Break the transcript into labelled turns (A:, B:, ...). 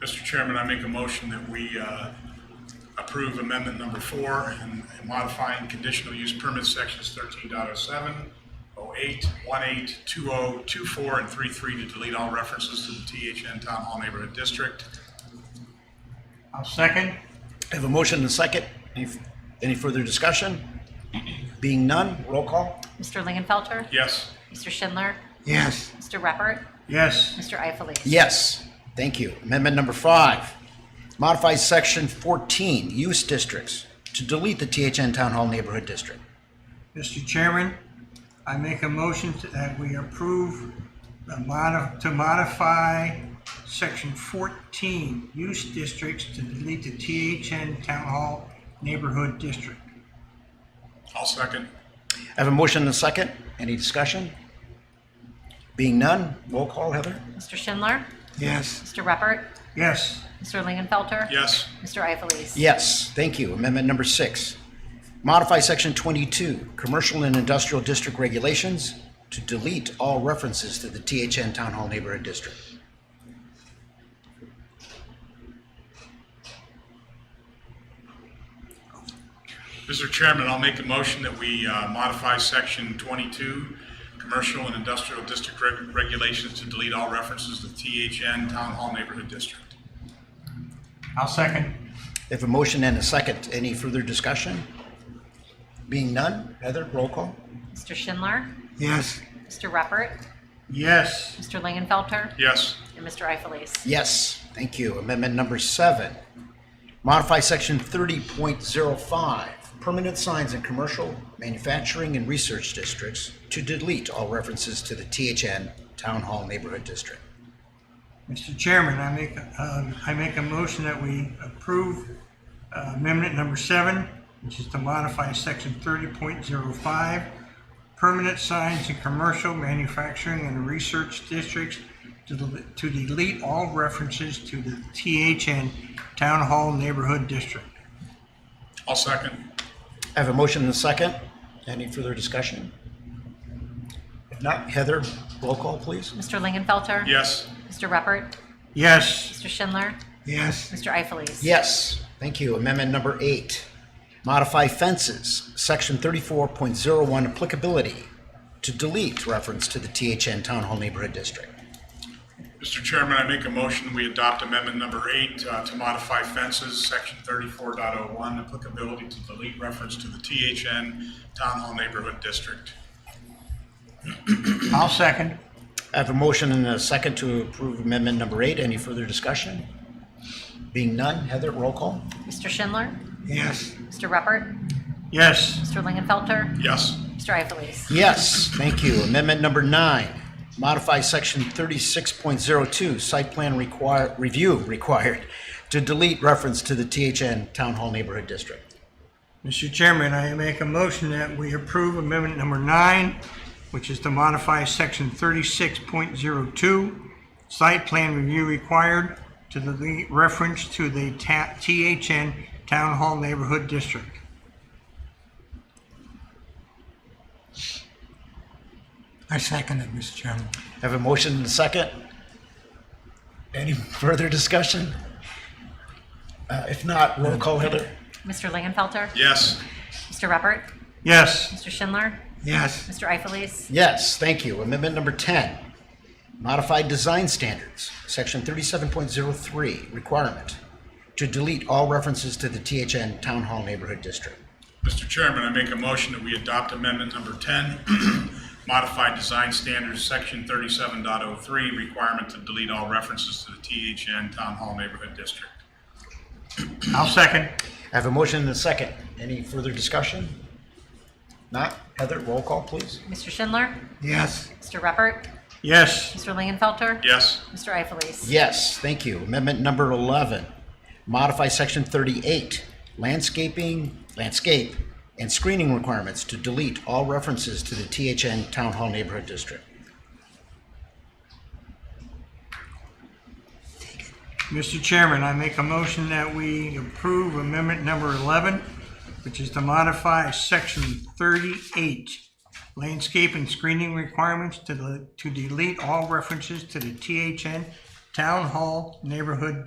A: Mr. Chairman, I make a motion that we uh, approve amendment number four and and modifying conditional use permit sections 13.07, 08, 18, 20, 24, oh and 33 to delete all references to the THN Town Hall Neighborhood District.
B: I'll second.
C: I have a motion and a second. Any, any further discussion? Being none, roll call.
D: Mr. Lingenfelter?
A: Yes,
D: Mr. Schindler?
B: Yes.
D: Mr. Reppert?
B: Yes.
D: Mr. Ifelis?
C: Yes, thank you. Amendment number five, modify section fourteen, use districts, to delete the THN Town Hall Neighborhood District.
B: Mr. Chairman, I make a motion to- that we approve the modi- to modify section fourteen, use districts to delete the THN Town Hall Neighborhood District.
A: I'll second.
C: I have a motion and a second. Any discussion? Being none, roll call, Heather.
D: Mr. Schindler?
B: Yes.
D: Mr. Reppert?
B: Yes.
D: Mr. Lingenfelter?
A: Yes,
D: Mr. Ifelis?
C: Yes, thank you. Amendment number six, modify section twenty-two, commercial and industrial district regulations, to delete all references to the THN Town Hall Neighborhood District.
A: Mr. Chairman, I'll make a motion that we uh, modify section twenty-two, commercial and industrial district reg- regulations to delete all references to THN Town Hall Neighborhood District.
B: I'll second.
C: If a motion and a second, any further discussion? Being none, Heather, roll call?
D: Mr. Schindler?
B: Yes.
D: Mr. Reppert?
B: Yes.
D: Mr. Lingenfelter?
A: Yes,
D: And Mr. Ifelis?
C: Yes, thank you. Amendment number seven. Modify section thirty point zero five, permanent signs in commercial, manufacturing, and research districts to delete all references to the THN Town Hall Neighborhood District.
B: Mr. Chairman, I make, um, I make a motion that we approve uh, amendment number seven, which is to modify section thirty point zero five, permanent signs in commercial, manufacturing, and research districts to del- to delete all references to the THN Town Hall Neighborhood District.
A: I'll second.
C: I have a motion and a second. Any further discussion? If not, Heather, roll call, please.
D: Mr. Lingenfelter?
A: Yes,
D: Mr. Reppert?
B: Yes.
D: Mr. Schindler?
B: Yes.
D: Mr. Ifelis?
C: Yes, thank you. Amendment number eight, modify fences, section thirty-four point zero one applicability to delete reference to the THN Town Hall Neighborhood District.
A: Mr. Chairman, I make a motion, we adopt amendment number eight uh, to modify fences, section 34.01, applicability to delete reference to the THN Town Hall Neighborhood District.
B: I'll second.
C: I have a motion and a second to approve amendment number eight. Any further discussion? Being none, Heather, roll call?
D: Mr. Schindler?
B: Yes.
D: Mr. Reppert?
B: Yes.
D: Mr. Lingenfelter?
A: Yes,
D: Mr. Ifelis?
C: Yes, thank you. Amendment number nine, modify section thirty-six point zero two, site plan require, review required to delete reference to the THN Town Hall Neighborhood District.
B: Mr. Chairman, I make a motion that we approve amendment number nine, which is to modify section thirty-six point zero two, site plan review required to the reference to the ta- THN Town Hall Neighborhood District.
E: I second it, Mr. Chairman.
C: Have a motion and a second. Any further discussion? Uh, If not, roll call Heather.
D: Mr. Lingenfelter?
A: yes,
D: Mr. Reppert?
B: Yes.
D: Mr. Schindler?
B: Yes.
D: Mr. Ifelis?
C: Yes, thank you. Amendment number 10, modified design standards, section 37.03, requirement to delete all references to the THN Town Hall Neighborhood District.
A: Mr. Chairman, I make a motion that we adopt amendment number 10, modified design standards, section 37.03, requirement to delete all references to the THN Town Hall Neighborhood District.
B: I'll second.
C: I have a motion and a second. Any further discussion? Not? Heather, roll call, please.
D: Mr. Schindler?
B: Yes.
D: Mr. Reppert?
B: Yes.
D: Mr. Lingenfelter?
A: Yes,
D: Mr. Ifelis?
C: Yes, thank you. Amendment number 11, modify section 38, landscaping, landscape, and screening requirements to delete all references to the THN Town Hall Neighborhood District.
B: Mr. Chairman, I make a motion that we approve amendment number 11, which is to modify section 38, landscape and screening requirements to the, to delete all references to the THN Town Hall Neighborhood